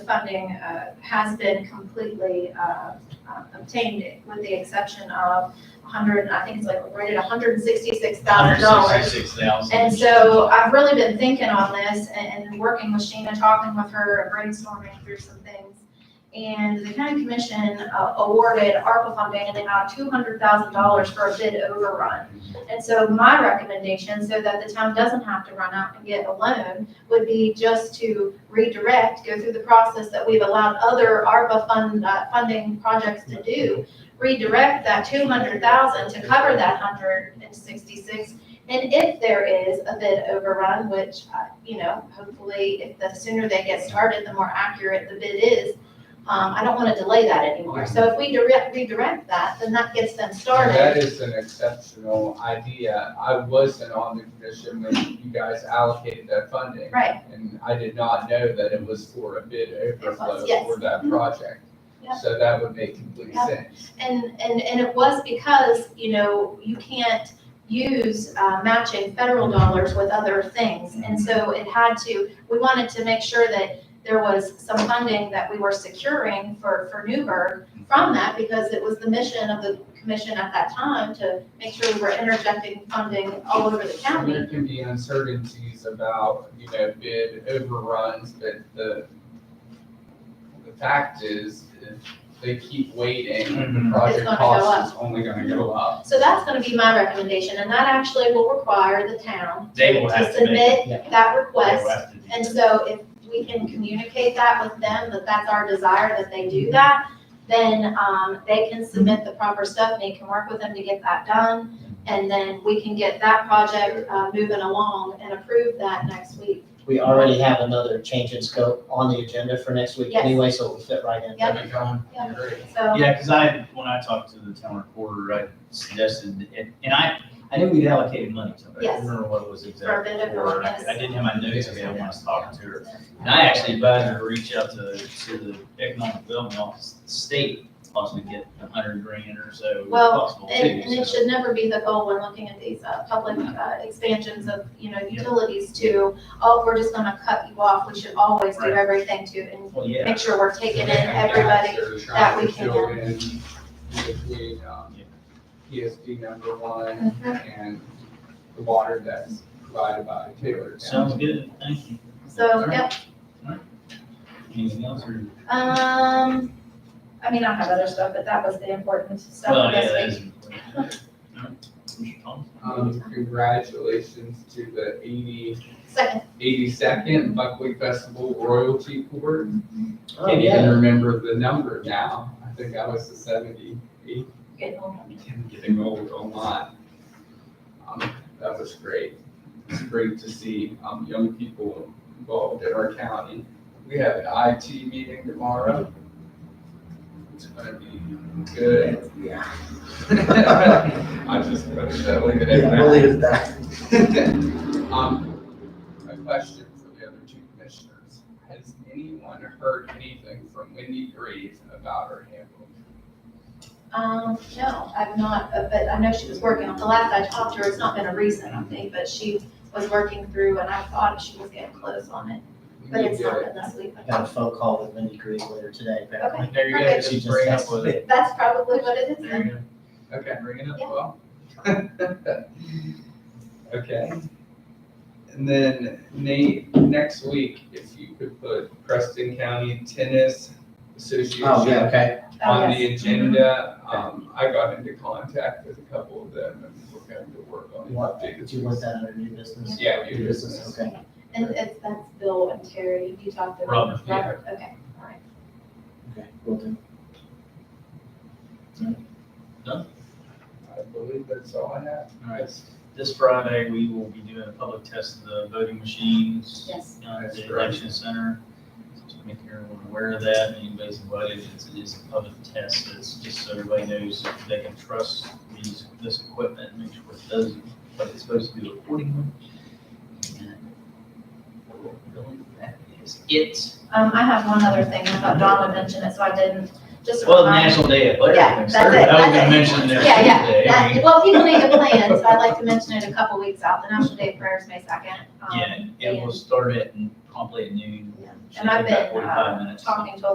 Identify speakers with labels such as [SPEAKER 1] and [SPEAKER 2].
[SPEAKER 1] funding uh, has been completely uh, uh, obtained, with the exception of 100, I think it's like rated $166,000.
[SPEAKER 2] $166,000.
[SPEAKER 1] And so I've really been thinking on this and, and working with Sheena, talking with her, brainstorming through some things. And the county commission uh, awarded ARPA funding in the amount of two hundred thousand dollars for a bid overrun. And so my recommendation, so that the town doesn't have to run out and get a loan, would be just to redirect, go through the process that we've allowed other ARPA fund, uh, funding projects to do. Redirect that two hundred thousand to cover that hundred and sixty-six and if there is a bid overrun, which, uh, you know, hopefully, if the sooner they get started, the more accurate the bid is, um, I don't want to delay that anymore. So if we direct, redirect that, then that gets them
[SPEAKER 3] That
[SPEAKER 1] started.
[SPEAKER 3] is an exceptional idea. I wasn't on the commission when you guys allocated that funding.
[SPEAKER 1] Right,
[SPEAKER 3] And I did not know that it was for a bid overflow
[SPEAKER 1] yes. Mm-hmm.
[SPEAKER 3] for that project.
[SPEAKER 1] Yeah.
[SPEAKER 3] So that would make complete
[SPEAKER 1] Yeah.
[SPEAKER 3] sense.
[SPEAKER 1] and, and, and it was because, you know, you can't use, uh, matching federal dollars with other things. And so it had to, we wanted to make sure that there was some funding that we were securing for, for Newburgh from that, because it was the mission of the commission at that time to make sure we were interjecting funding all over the
[SPEAKER 3] So
[SPEAKER 1] county.
[SPEAKER 3] There can be uncertainties about, you know, bid overruns, but the, the fact is, if they keep waiting, the
[SPEAKER 2] Mhm.
[SPEAKER 3] project
[SPEAKER 1] gonna go
[SPEAKER 3] cost is only gonna go up.
[SPEAKER 1] So that's gonna be my recommendation, and that actually will require the town
[SPEAKER 2] They will
[SPEAKER 1] to
[SPEAKER 2] have to make.
[SPEAKER 1] submit that request And
[SPEAKER 2] West.
[SPEAKER 1] so if we can communicate that with them, that that's our desire, that they do that, then, um, they can submit the proper stuff, and they can work with them to get that done. And then we can get that project, uh, moving along and approve that next week.
[SPEAKER 4] We already have another change in scope on the agenda for next week
[SPEAKER 1] Yes.
[SPEAKER 4] anyway, so it will fit right in.
[SPEAKER 1] Yep. Yeah.
[SPEAKER 3] Great.
[SPEAKER 1] So,
[SPEAKER 2] Yeah, because I, when I talked to the town recorder, I suggested, and, and I, I knew we'd allocated money to it. I
[SPEAKER 1] Yes.
[SPEAKER 2] don't remember what it was
[SPEAKER 1] For a
[SPEAKER 2] exactly
[SPEAKER 1] bit of
[SPEAKER 2] for, and I
[SPEAKER 1] bonus.
[SPEAKER 2] I didn't have my notes, I didn't want to talk to her. And I actually advised her to reach out to, to the economic development office, the state, possibly get a hundred grand or so if
[SPEAKER 1] Well,
[SPEAKER 2] possible too.
[SPEAKER 1] and, and it
[SPEAKER 2] so.
[SPEAKER 1] should never be the goal when looking at these, uh, public, uh, expansions of, you know, utilities to, oh, we're just gonna cut you off, we should always do
[SPEAKER 2] Right.
[SPEAKER 1] everything to, and
[SPEAKER 2] Well, yeah.
[SPEAKER 1] make sure we're taking in everybody. that we can.
[SPEAKER 3] Trying to fill in between, um, PSD number one and the water that's provided by Taylor
[SPEAKER 2] Sounds
[SPEAKER 3] County.
[SPEAKER 2] good, thank you.
[SPEAKER 1] So, yep,
[SPEAKER 2] Anything else or?
[SPEAKER 1] Um, I mean, I have other stuff, but that was the important
[SPEAKER 2] Well,
[SPEAKER 1] stuff
[SPEAKER 2] yeah, that
[SPEAKER 1] this
[SPEAKER 2] is.
[SPEAKER 1] week.
[SPEAKER 2] Mr. Thomas?
[SPEAKER 3] Um, congratulations to the eighty,
[SPEAKER 1] Second,
[SPEAKER 3] eighty-second Buckwheat Festival Royalty Board.
[SPEAKER 4] Oh,
[SPEAKER 3] Can't
[SPEAKER 4] yeah.
[SPEAKER 3] even remember the number now. I think I was the seventy-eighth.
[SPEAKER 1] getting older.
[SPEAKER 3] Getting old online. Um, that was great. It's great to see, um, young people involved in our county. We have an IT meeting tomorrow. It's gonna be good.
[SPEAKER 5] Yeah,
[SPEAKER 3] I just, I'm leave it at that.
[SPEAKER 5] believe it that.
[SPEAKER 3] Um, a question for the other two commissioners. Has anyone heard anything from Wendy Greve about her handbook?
[SPEAKER 1] Um, no, I've not, uh, but I know she was working on, the last I talked to her, it's not been a recent, I think, but she was working through and I thought she was getting close on it,
[SPEAKER 3] We
[SPEAKER 1] but
[SPEAKER 3] need
[SPEAKER 1] it's
[SPEAKER 3] to get
[SPEAKER 1] not
[SPEAKER 3] it.
[SPEAKER 1] been this week.
[SPEAKER 4] I got a phone call with Mindy Green later today, apparently.
[SPEAKER 2] There you go,
[SPEAKER 1] Perfect.
[SPEAKER 2] just bring up with it.
[SPEAKER 1] That's probably what it is
[SPEAKER 2] There
[SPEAKER 1] then.
[SPEAKER 2] you go.
[SPEAKER 3] Okay, bring it up,
[SPEAKER 1] Yeah.
[SPEAKER 3] well. Okay. And then Nate, next week, if you could put Preston County Tennis
[SPEAKER 4] Oh, yeah,
[SPEAKER 3] Association
[SPEAKER 4] okay.
[SPEAKER 1] Oh,
[SPEAKER 3] on
[SPEAKER 1] yes.
[SPEAKER 3] the agenda. Um, I got into contact with a couple of them and we're going to work on an
[SPEAKER 4] What,
[SPEAKER 3] updated.
[SPEAKER 4] Do you want that under new business?
[SPEAKER 3] Yeah,
[SPEAKER 4] New
[SPEAKER 3] new business.
[SPEAKER 4] Okay.
[SPEAKER 1] And it's, that's Bill and Terry, you talked to.
[SPEAKER 2] Robert,
[SPEAKER 3] yeah.
[SPEAKER 1] Robert, okay, all right.
[SPEAKER 4] Okay, will do.
[SPEAKER 3] I believe that's all I have.
[SPEAKER 2] All right, this Friday, we will be doing a public test of the voting machines.
[SPEAKER 1] Yes.
[SPEAKER 2] uh, At
[SPEAKER 3] That's
[SPEAKER 2] the
[SPEAKER 3] great.
[SPEAKER 2] election center. Just make everyone aware of that, anybody's invited, it's, it is a public test, it's just so everybody knows if they can trust these, this equipment, make sure it does what it's supposed to do accordingly. And That is it.
[SPEAKER 1] Um, I have one other thing, I thought Don would mention it, so I didn't. just a
[SPEAKER 2] Well,
[SPEAKER 1] reminder.
[SPEAKER 2] National Day Athletic.
[SPEAKER 1] Yeah,
[SPEAKER 2] next
[SPEAKER 1] that's
[SPEAKER 2] Thursday.
[SPEAKER 1] it,
[SPEAKER 2] That would
[SPEAKER 1] that's
[SPEAKER 2] be
[SPEAKER 1] it.
[SPEAKER 2] mentioned next
[SPEAKER 1] Yeah, yeah,
[SPEAKER 2] Tuesday. I mean,
[SPEAKER 1] That- Well, if people need to plan, so I'd like to mention it a couple weeks out, the National Day of Prayer is May second. Um,
[SPEAKER 2] Yeah, and we'll start it probably at noon.
[SPEAKER 1] And I've
[SPEAKER 2] Should take about
[SPEAKER 1] been, uh,
[SPEAKER 2] 45 minutes.
[SPEAKER 1] Talking to a